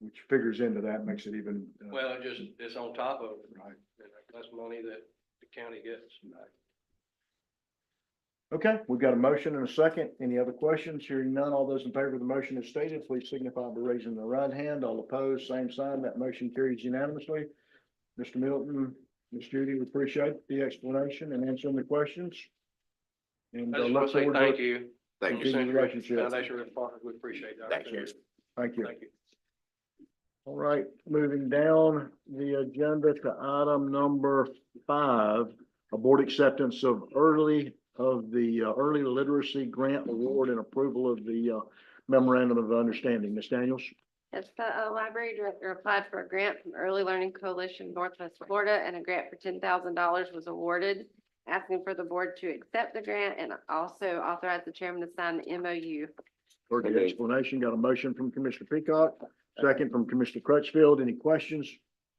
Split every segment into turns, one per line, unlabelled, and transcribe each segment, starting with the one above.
which figures into that, makes it even. uh,
Well, it just, it's on top of,
Right.
that's money that the county gets.
Okay, we've got a motion and a second. Any other questions? Hearing none, all those in favor of the motion as stated, please signify by raising the right hand. All opposed, same sign. That motion carries unanimously. Mr. Milton, Ms. Judy, we appreciate the explanation and answering the questions. And
I
uh,
just want
look
to say
forward to
thank you.
Thank you.
you.
Send your
Relationship.
Foundation Response, we appreciate that.
Thank you.
Thank you.
Thank you.
All right, moving down the agenda to item number five, a board acceptance of early of the uh, early literacy grant award and approval of the uh, memorandum of understanding. Ms. Daniels?
Yes, the uh, library director applied for a grant from Early Learning Coalition Northwest Florida, and a grant for ten thousand dollars was awarded, asking for the board to accept the grant and also authorize the chairman to sign the MOU.
Heard the
Okay.
explanation, got a motion from Commissioner Peacock, second from Commissioner Crutchfield. Any questions,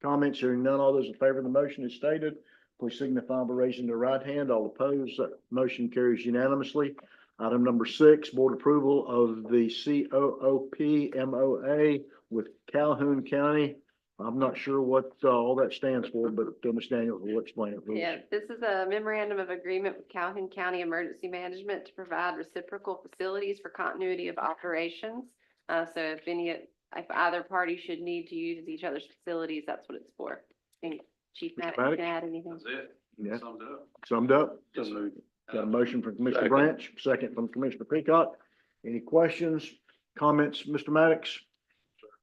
comments, hearing none, all those in favor of the motion as stated, please signify by raising their right hand, all opposed, that motion carries unanimously. Item number six, board approval of the C O O P M O A with Calhoun County. I'm not sure what uh, all that stands for, but uh, Ms. Daniels will explain it. for us.
Yeah, this is a memorandum of agreement with Calhoun County Emergency Management to provide reciprocal facilities for continuity of operations. Uh, so if any, if either party should need to use each other's facilities, that's what it's for. And Chief
Mr.
Maddox, you
Maddox?
can add anything.
That's it.
Yeah.
Summed it up.
Summed up?
Yes, sir. Uh,
Got a motion from Commissioner
Second.
Branch, second from Commissioner Peacock. Any questions, comments, Mr. Maddox?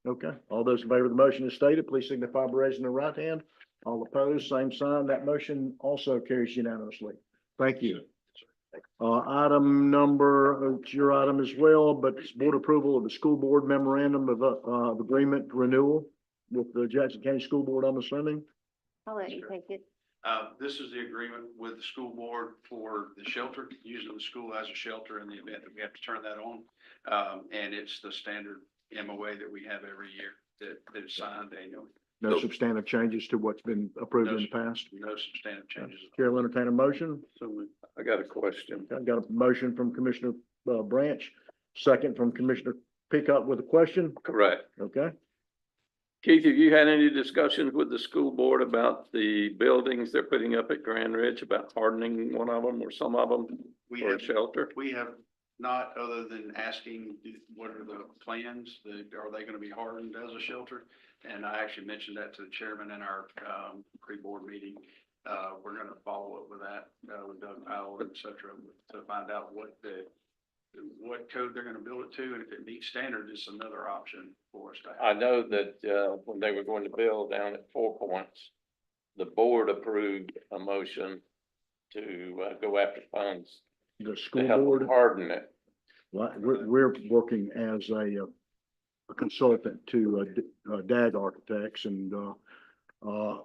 Okay, all those in favor of the motion as stated, please signify by raising the right hand. All opposed, same sign. That motion also carries unanimously. Thank you. Uh, item number, it's your item as well, but it's board approval of the school board memorandum of, uh, of agreement renewal with the Jackson County School Board, I'm assuming.
I'll let you take it.
Uh, this is the agreement with the school board for the shelter, using the school as a shelter in the event that we have to turn that on. Um, and it's the standard MOA that we have every year that, that is signed annually,
No
Nope.
substantive changes to what's been approved in the past.
no substantive changes.
Chair will entertain a motion.
So we-
I got a question.
I got a motion from Commissioner uh, Branch, second from Commissioner Pickup with a question.
Correct.
Okay,
Keith, have you had any discussions with the school board about the buildings they're putting up at Grand Ridge, about hardening one of them or some of them
We
for
have
a shelter?
We have not, other than asking, what are the plans, The- are they gonna be hardened as a shelter? And I actually mentioned that to the chairman in our, um, pre-board meeting. Uh, we're gonna follow up with that, uh, with Doug Powell, et cetera, to find out what the, what code they're gonna build it to, and if it meets standard, it's another option for us to have.
I know that, uh, when they were going to build down at Four Points, the board approved a motion to, uh, go after funds
the
to
school
help
board,
them harden it.
like, we're, we're working as a uh, a consultant to uh, D- uh, DAG Architects and uh, uh,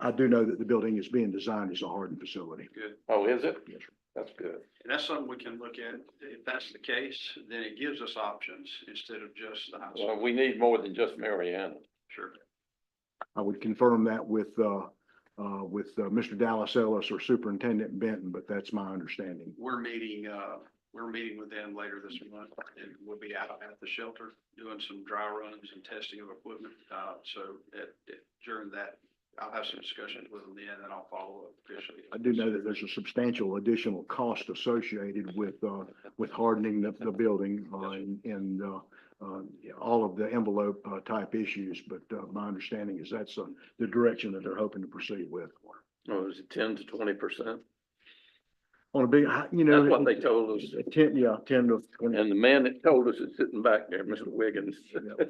I do know that the building is being designed as a hardened facility.
Good.
Oh, is it?
Yes, sir.
That's good.
And that's something we can look at. If that's the case, then it gives us options instead of just the house.
Well, we need more than just Mariana.
Sure.
I would confirm that with, uh, uh, with uh, Mr. Dallas Ellis or Superintendent Benton, but that's my understanding.
we're meeting, uh, we're meeting with them later this month, and we'll be out at the shelter doing some dry runs and testing of equipment. Uh, so at, at- during that, I'll have some discussions with them then, and I'll follow up officially.
I do know that there's a substantial additional cost associated with, uh, with hardening the, the building, uh, and, and, uh, uh, all of the envelope, uh, type issues, but, uh, my understanding is that's, uh, the direction that they're hoping to proceed with.
Oh, is it ten to twenty percent?
On a big, I- you know.
That's what they told us.
Ten, yeah, ten to twenty,
And the man that told us is sitting back there, Mr. Wiggins.
Yeah.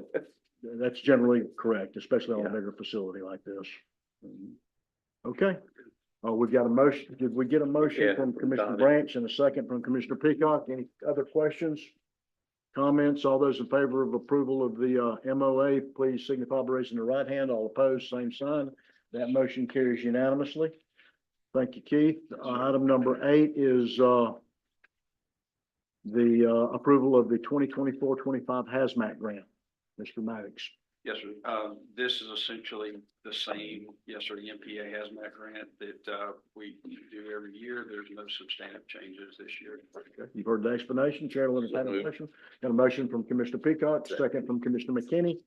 that's generally correct, especially on a
Yeah.
bigger facility like this. Okay, uh, we've got a motion, did we get a motion
Yeah,
from
from
Commissioner
Donna.
Branch and a second from Commissioner Peacock? Any other questions? Comments, all those in favor of approval of the, uh, MOA, please signify by raising the right hand, all opposed, same sign. That motion carries unanimously. Thank you, Keith. Uh, Item number eight is, uh, the, uh, approval of the 2024-25 hazmat grant, Mr. Maddox.
Yes, sir. Um, this is essentially the same, yes, sir, the MPA hazmat grant that, uh, we do every year. There's no substantive changes this year.
You've heard the explanation. Chair will entertain a motion. Got a motion from Commissioner Peacock, second from Commissioner McKinney.